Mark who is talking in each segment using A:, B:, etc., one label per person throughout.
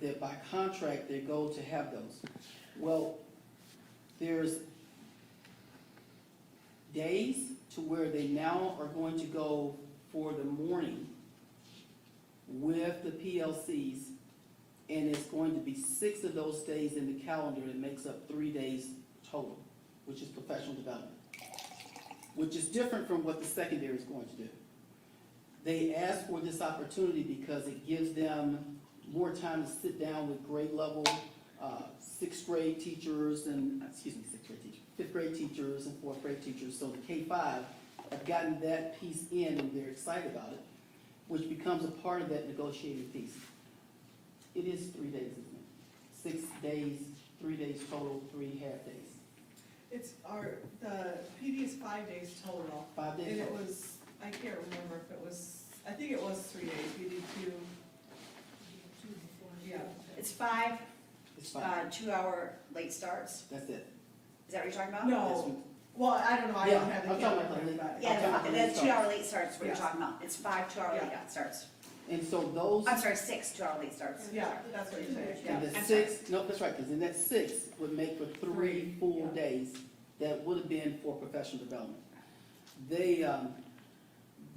A: that by contract, they're going to have those. Well, there's days to where they now are going to go for the morning with the PLCs, and it's going to be six of those days in the calendar that makes up three days total, which is professional development, which is different from what the secondary is going to do. They ask for this opportunity because it gives them more time to sit down with grade level, uh, sixth grade teachers and, excuse me, sixth grade teachers, fifth grade teachers and fourth grade teachers, so the K five have gotten that piece in and they're excited about it, which becomes a part of that negotiating piece. It is three days, isn't it? Six days, three days total, three half days,
B: It's our, the previous five days total,
A: five
B: and
A: days
B: it
A: total.
B: was, I can't remember if it was, I think it was three days, we did two. Yeah,
C: It's five,
A: It's five,
C: uh, two-hour late starts,
A: that's it.
C: is that what you're talking about?
B: No.
A: That's-
B: well, I don't know, I don't
A: Yeah,
B: have the
A: I'm talking
B: calendar,
A: about the-
B: but.
C: Yeah,
A: Okay,
C: the fi-
A: late
C: the two-hour late starts, what you're
B: Yeah.
C: talking about, it's five two-hour late
B: Yeah.
C: starts.
A: And so those.
C: I'm sorry, six two-hour late starts.
B: Yeah, that's what you're saying, yeah.
A: And
C: I'm
A: the
C: sorry.
A: six, no, that's right, because in that six would make for three
B: Three,
A: full
B: yeah.
A: days that would have been for professional development. They, um,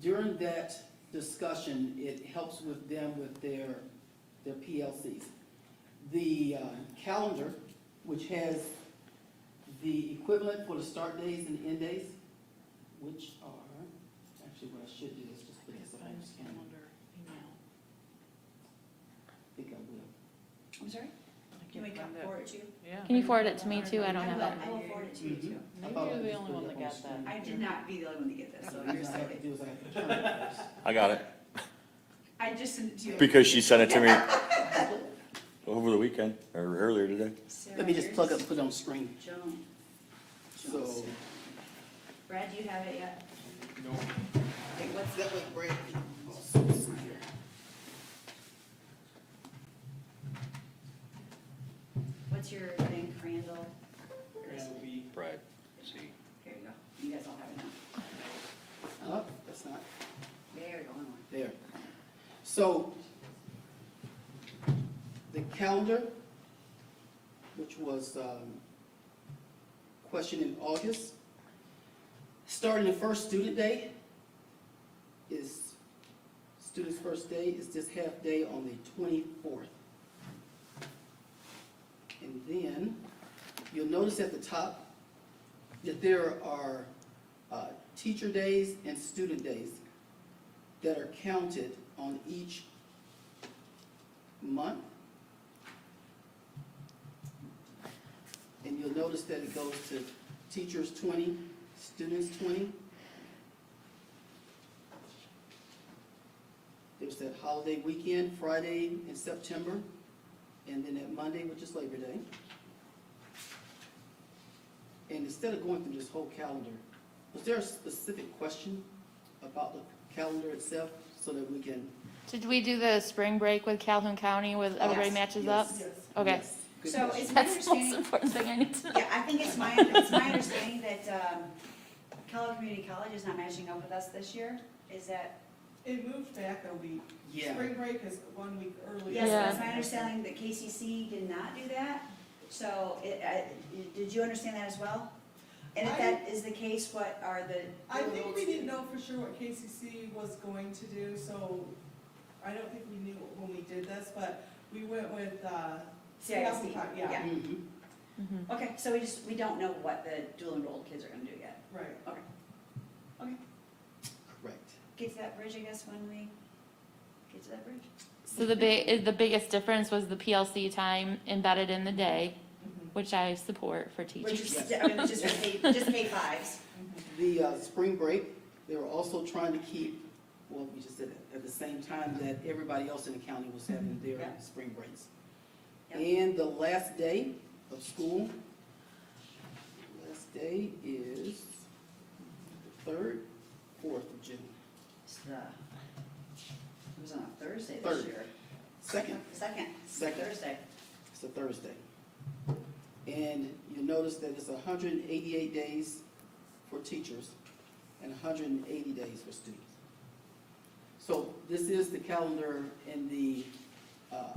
A: during that discussion, it helps with them with their, their PLCs. The, um, calendar, which has the equivalent for the start days and end days, which are, actually what I should do is just put this on the calendar, I think I will.
C: I'm sorry, can we come forward to you?
D: Can you forward it to me too? I don't
C: I
D: have
C: will,
D: it.
C: I will forward it to you too.
A: I
E: Maybe
A: thought I
E: you're the
A: just
E: only
A: put
E: one
A: it
E: that
A: up on the
E: got
A: screen.
E: that.
C: I did not be the only one to get this, so
A: All I
C: you're
A: have to
C: second.
A: do is I have to turn it first.
F: I got it,
C: I just sent it to you.
F: because she sent it to me over the weekend, or earlier today.
C: Sarah,
A: Let me just
C: yours?
A: plug up, put it on screen.
C: Joan. Jones.
A: So,
C: Brad, do you have it yet? No. what's
A: that
C: the,
A: way, Brad. also is here.
C: what's your thing, Crandall?
F: Right, see.
C: Here you go, you guys all have it now.
A: Oh, that's not,
C: There you go, one more.
A: there. So, the calendar, which was, um, questioned in August, starting the first student day is, student's first day is this half day on the twenty-fourth. And then, you'll notice at the top that there are uh, teacher days and student days that are counted on each month. And you'll notice that it goes to teachers twenty, students twenty. There's that holiday weekend, Friday in September, and then that Monday, which is Labor Day. And instead of going through this whole calendar, was there a specific question about the calendar itself so that we can?
D: Did we do the spring break with Calhoun County with everybody
C: Yes,
D: matches up?
A: Yes, yes,
D: Okay.
A: yes. Good
C: So
A: question.
C: it's my
D: That's the most
C: understanding,
D: important thing I need to know.
C: yeah, I think it's my, it's my understanding that, um, Kellogg Community College is not matching up with us this year, is that?
B: It moved back a week,
A: Yeah.
B: spring break is one week earlier.
C: Yes,
D: Yeah.
C: that's my understanding, that KCC did not do that, so, it, I, did you understand that as well? And if that is the case, what are the?
B: I think we
C: rules?
B: didn't know for sure what KCC was going to do, so I don't think we knew when we did this, but we went with, uh,
C: CISD,
B: Yeah,
C: yeah,
A: Mhm.
D: Mhm.
C: okay, so we just, we don't know what the dual enrolled kids are gonna do yet,
B: right.
C: okay.
A: Correct.
C: Get to that bridge, I guess, when we get to that bridge?
D: So the big, the biggest difference was the PLC time embedded in the day,
B: Mhm,
D: which I support for
C: Which
D: teachers.
C: is, I mean, just K, just K fives.
B: mhm.
A: The uh, spring break, they were also trying to keep, well, we just said it, at the same time that everybody else in the county was having their
C: Mm-hmm. Yeah.
A: spring breaks.
C: Yeah.
A: And the last day of school, last day is the third, fourth of June,
C: It's
B: uh,
C: the- It was on a Thursday this
A: Third.
C: year.
A: second,
C: Second.
A: Second.
C: Thursday.
A: it's a Thursday. And you'll notice that it's hundred and eighty-eight days for teachers and hundred and eighty days for students. So this is the calendar and the, uh,